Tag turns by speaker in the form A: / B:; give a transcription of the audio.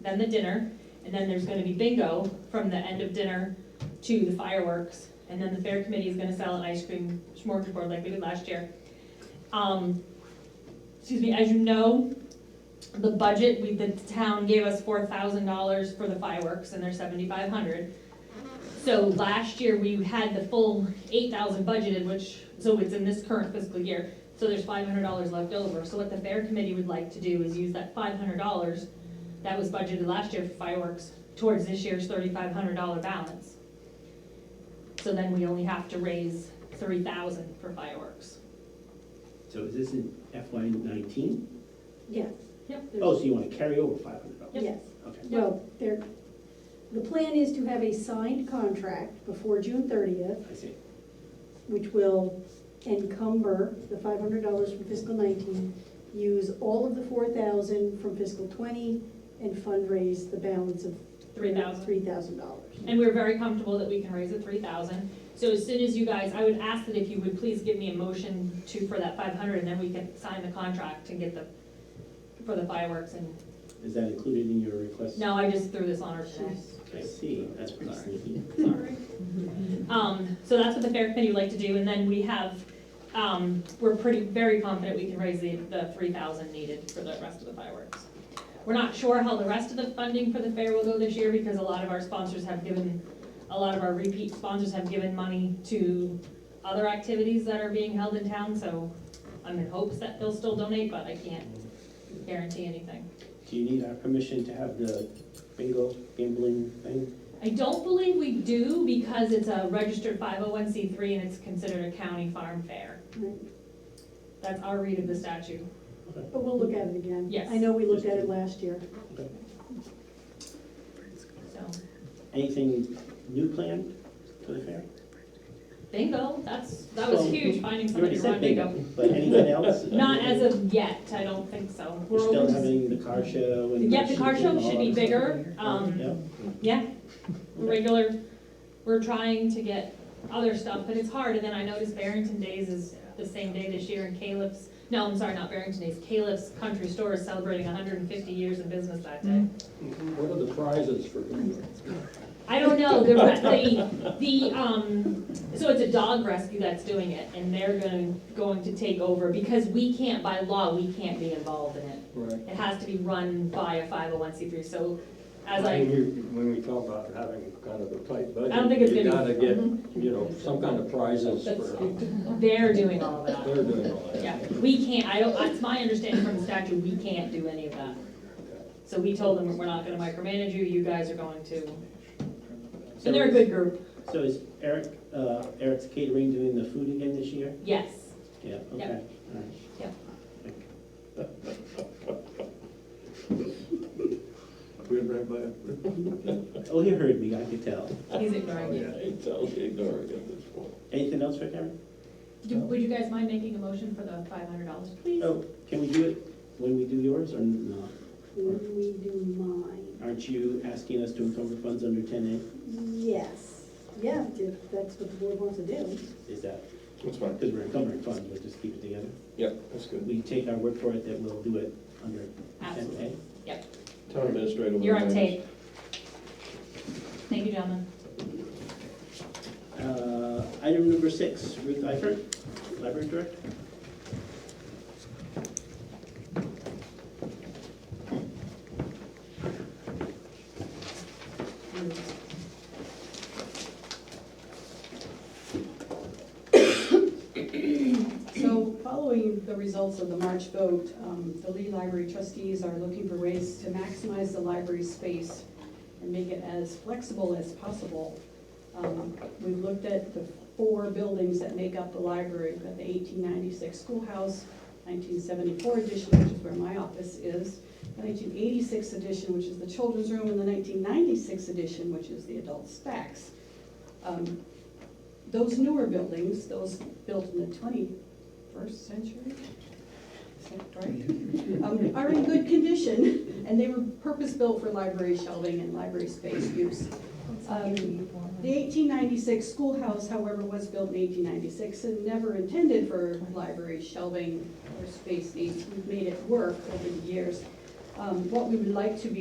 A: then the dinner, and then there's gonna be bingo from the end of dinner to the fireworks. And then the fair committee is gonna sell an ice cream smorgasbord like we did last year. Um, excuse me, as you know, the budget, we, the town gave us four thousand dollars for the fireworks and they're seventy-five hundred. So last year, we had the full eight thousand budgeted, which, so it's in this current fiscal year, so there's five hundred dollars left over. So what the fair committee would like to do is use that five hundred dollars that was budgeted last year for fireworks towards this year's thirty-five hundred dollar balance. So then we only have to raise three thousand for fireworks.
B: So is this in FY nineteen?
C: Yes.
A: Yep.
C: There's-
B: Oh, so you wanna carry over five hundred dollars?
C: Yes,
B: Okay.
C: well, there, the plan is to have a signed contract before June thirtieth,
B: I see.
C: which will encumber the five hundred dollars from fiscal nineteen, use all of the four thousand from fiscal twenty, and fundraise the balance of
A: Three thousand.
C: Three thousand dollars.
A: And we're very comfortable that we can raise it three thousand. So as soon as you guys, I would ask that if you would please give me a motion to, for that five hundred, and then we can sign the contract and get the, for the fireworks and,
B: Is that included in your request?
A: no, I just threw this on her today.
B: I see, that's pretty sneaky.
A: Sorry. Um, so that's what the fair committee would like to do, and then we have, um, we're pretty, very confident we can raise the, the three thousand needed for the rest of the fireworks. We're not sure how the rest of the funding for the fair will go this year, because a lot of our sponsors have given, a lot of our repeat sponsors have given money to other activities that are being held in town, so I'm in hopes that they'll still donate, but I can't guarantee anything.
B: Do you need our permission to have the bingo gambling thing?
A: I don't believe we do because it's a registered five oh one C three and it's considered a county farm fair. That's our read of the statute.
C: But we'll look at it again.
A: Yes.
C: I know we looked at it last year.
B: Okay.
A: So
B: Anything new planned for the fair?
A: bingo, that's, that was
B: So,
A: huge, finding
B: You
A: somebody
B: already
A: to run
B: said
A: bingo.
B: But anything else?
A: Not as of yet, I don't think so.
B: We're
A: We're
B: still
A: open to-
B: having the car show and.
A: Yeah, the car show should be bigger.
B: Yeah.
A: Um, yeah, regular, we're trying to get other stuff, but it's hard. And then I noticed Barrington Days is the same day this year and Caleb's, no, I'm sorry, not Barrington Days, Caleb's Country Store is celebrating hundred and fifty years in business that day.
D: What are the prizes for bingo?
A: I don't know, the, the, the, um, so it's a dog rescue that's doing it, and they're gonna, going to take over, because we can't, by law, we can't be involved in it.
D: Right.
A: It has to be run by a five oh one C three, so as
D: When
A: I,
D: you- When we talk about having kind of a tight budget.
A: I don't think it's
D: You
A: gonna
D: gotta
A: be- Mm-hmm.
D: get, you know, some kind of prizes
A: That's-
D: for,
A: they're doing all of
D: they're
A: that.
D: doing all that.
A: Yeah, we can't, I don't, it's my understanding from the statute, we can't do any of that. So we told them, we're not gonna micromanage you, you guys are going to,
B: So
A: and they're a good group,
B: So is Eric, uh, Eric's Catering doing the food again this year?
A: yes,
B: Yeah, okay. all right.
D: We're right by.
B: Oh, he heard me, I could tell.
A: he's ignoring you.
D: It's totally ignoring at this point.
B: Anything else for Karen?
A: Do- Would you guys mind making a motion for the five hundred dollars, please?
B: Oh, can we do it when we do yours or not?
C: When we do mine,
B: Aren't you asking us to encumber funds under ten
C: yes, yeah, if that's what the board wants to do.
B: A? Is that,
D: That's fine.
B: because we're encumbering funds, we'll just keep it together.
D: Yep, that's good.
B: We take our word for it that we'll do it under ten
A: Absolutely.
B: A.
D: Town administrator.
A: You're on tape. Thank you, gentlemen.
B: Uh, item number six, Ruth Eifert, library director.
E: So following the results of the March vote, um, the Lee Library trustees are looking for ways to maximize the library space and make it as flexible as possible. Um, We looked at the four buildings that make up the library, we've got the eighteen ninety-six schoolhouse, nineteen seventy-four edition, which is where my office is, the nineteen eighty-six edition, which is the children's room, and the nineteen ninety-six edition, which is the adult stacks. Um, Those newer buildings, those built in the twenty first century? Is that right? Um, Are in good condition, and they were purpose-built for library shelving and library space use. Um, The eighteen ninety-six schoolhouse, however, was built in eighteen ninety-six and never intended for library shelving or space needs. We've made it work over the years. Um, What we would like to be